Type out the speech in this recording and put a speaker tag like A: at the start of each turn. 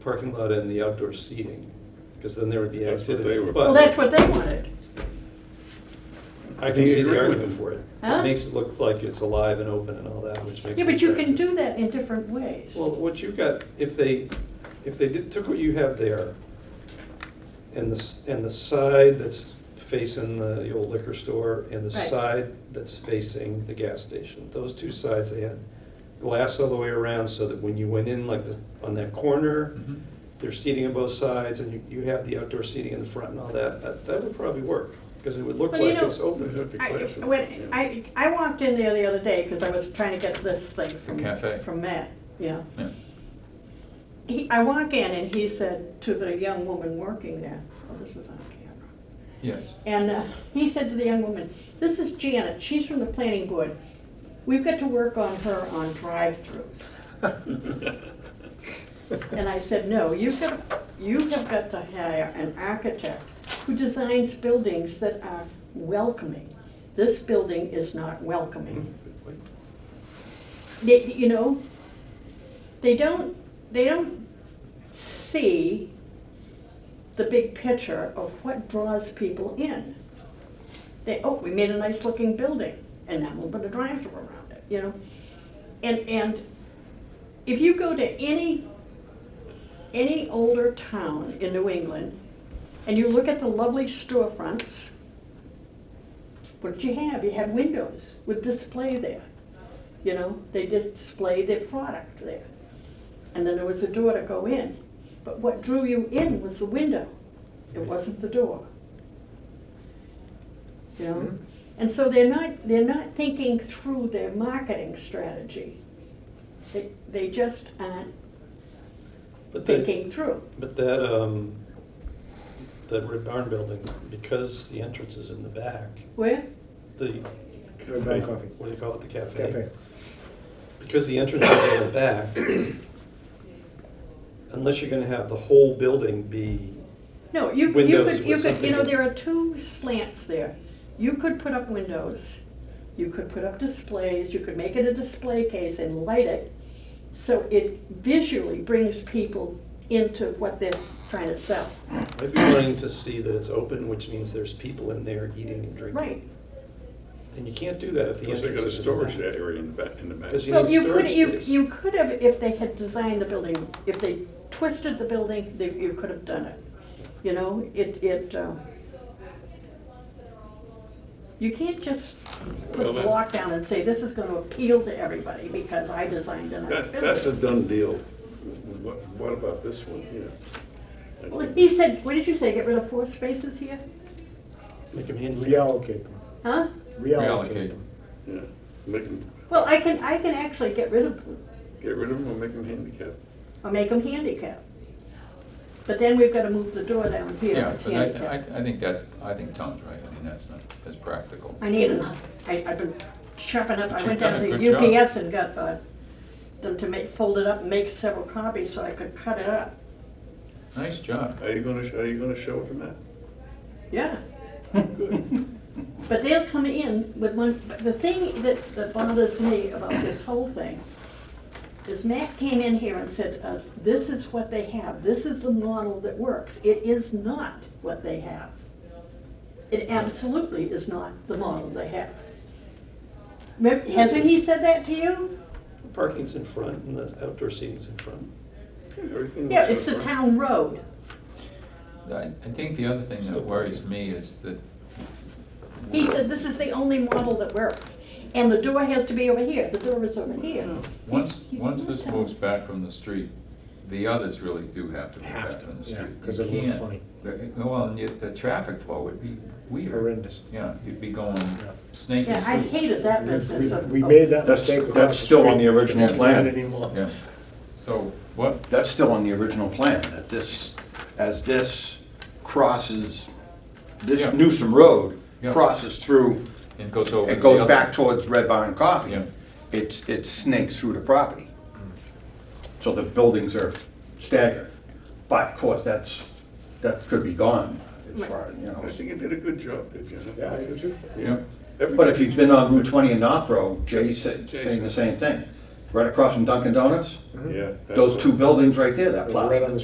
A: parking lot and the outdoor seating, because then there would be
B: That's what they
A: activity.
B: were-
A: But
C: Well, that's what they wanted.
A: I can see
B: They
A: the
B: agree with
A: argument
B: it.
A: for it.
C: Huh?
A: It makes it look like it's alive and open and all that, which makes it
C: Yeah, but you can
A: attractive.
C: do that in different ways.
A: Well, what you got, if they, if they did, took what you have there, and the, s- and the side that's facing the the old liquor store, and the
C: Right.
A: side that's facing the gas station, those two sides, they had glass all the way around, so that when you went in, like, the on that corner,
B: Mm-hmm.
D: Mm-hmm.
A: there's seating on both sides, and you, you have the outdoor seating in the front and all that, that, that would probably work, because it would look
C: Well, you
A: like
C: know,
A: it's open.
B: That'd be
C: I,
B: classic.
C: when, I, I walked in there the other day, because I was trying to get this thing from,
D: cafe.
C: from Matt, yeah.
D: Yeah.
C: He, I walk in and he said to the young woman working there, oh, this is on camera.
D: Yes.
C: And uh, he said to the young woman, this is Janet, she's from the planning board. We've got to work on her on drive-throughs. And I said, no, you have, you have got to hire an architect who designs buildings that are welcoming. This building is not
A: Hmm?
C: welcoming. They, you know, they don't, they don't see the big picture of what draws people in. They, oh, we made a nice looking building, and now we'll put a drive-through around it, you know? And, and if you go to any, any older town in New England, and you look at the lovely storefronts, what did you have? You had windows with display there. You know, they display their product there. And then there was a door to go in. But what drew you in was the window. It wasn't the door. You know?
A: Mm-hmm.
C: And so they're not, they're not thinking through their marketing strategy. They, they just aren't
A: But they-
C: thinking through.
A: But that, um, that red barn building, because the entrance is in the back,
C: Where?
A: the.
E: Red Barn Coffee.
A: What do you call it, the cafe?
E: Cafe.
A: Because the entrance is in the back, unless you're gonna have the whole building be,
C: No, you, could- you
A: Windows
C: could, you
A: with
C: could, you know,
A: something-
C: there are two slants there. You could put up windows, you could put up displays, you could make it a display case and light it. So it visually brings people into what they're trying to sell.
A: I'd be wanting to see that it's open, which means there's people in there eating and drinking.
C: Right.
A: And you can't do that if the
B: Because
A: entrance
B: they got a
A: is in the
B: storage
A: back.
B: area in the back, in the back.
A: Because you
C: Well,
A: need
C: you could,
A: storage
C: you,
A: space.
C: you could have, if they had designed the building, if they twisted the building, they, you could have done it. You know, it, it, um, you can't just put a
B: Well, that-
C: block down and say, this is gonna appeal to everybody because I designed a nice
B: That, that's a
C: building.
B: done deal. What, what about this one here? I
C: Well,
B: think-
C: he said, what did you say, get rid of four spaces here?
A: Make them handicap.
E: Reallocate them.
C: Huh?
D: Reallocate.
E: Reallocate them.
B: Yeah, make them,
C: Well, I can, I can actually get rid of them
B: get rid of them or make them handicapped.
C: or make them handicap. But then we've gotta move the door down here,
D: Yeah,
C: it's
D: but I,
C: handicap.
D: I- I think that's, I think Tom's right. I mean, that's not, that's practical.
C: I need another. I, I've been chopping up, I
D: But
C: went
D: you've
C: down
D: done a
C: to
D: good job.
C: UPS and got, uh, them to make, fold it up and make several copies so I could cut it up.
D: Nice job.
B: Are you gonna, sh- are you gonna show it to Matt?
C: Yeah.
B: Good.
C: But they'll come in with one, but the thing that, that bothers me about this whole thing is Matt came in here and said to us, this is what they have, this is the model that works. It is not what they have. It absolutely is not the model they have. Remem- Hasn't he said that to you?
A: Parking's in front and the outdoor seating's in front.
B: Everything
C: Yeah,
B: looks
C: it's
B: so
C: the
B: fine.
C: town road.
D: I, I think the other thing that worries me is that.
C: He said, this is the only model that works. And the door has to be over here, the door is over here.
D: Once,
C: He's- he's
D: once
C: in the
D: this
C: town.
D: moves back from the street, the others really do have to move
E: Have
D: back
E: to,
D: from the
E: yeah,
D: street.
E: 'cause
D: You
E: it wouldn't
D: can't-
E: funny.
D: the- Well, and yet the traffic flow would be weird.
E: Horrendous.
D: Yeah, you'd be going snaking
C: Yeah, I
D: through.
C: hated that
E: Yes,
C: business of.
E: We we
C: of-
E: made that
F: That's-
E: mistake. across
F: that's
E: the
F: still on
E: street.
F: the original
E: Can't do that
F: plan.
E: anymore.
D: Yeah, so what,
F: That's still on the original plan, that this, as this crosses,
D: Yeah.
F: this Newsom Road
D: Yeah.
F: crosses through,
D: it goes over. to
F: it
D: the
F: goes
D: other-
F: back towards Red Barn Coffee.
D: Yeah.
F: It's, it snakes through the property. Mm. So the buildings are staggered. But of course, that's, that could be gone as far, as, you
B: I
F: know.
B: think you did a good job there, Janet.
E: Yeah, I do too.
D: Yeah.
F: But if you've been on Route 20 in North Road, Jay's sa- saying
B: Jason. Mm-hmm.
F: the same thing. Right across from Dunkin' Donuts,
B: Yeah. that
F: those
B: was-
F: two buildings right there, that
E: Right on
F: plaza.
E: the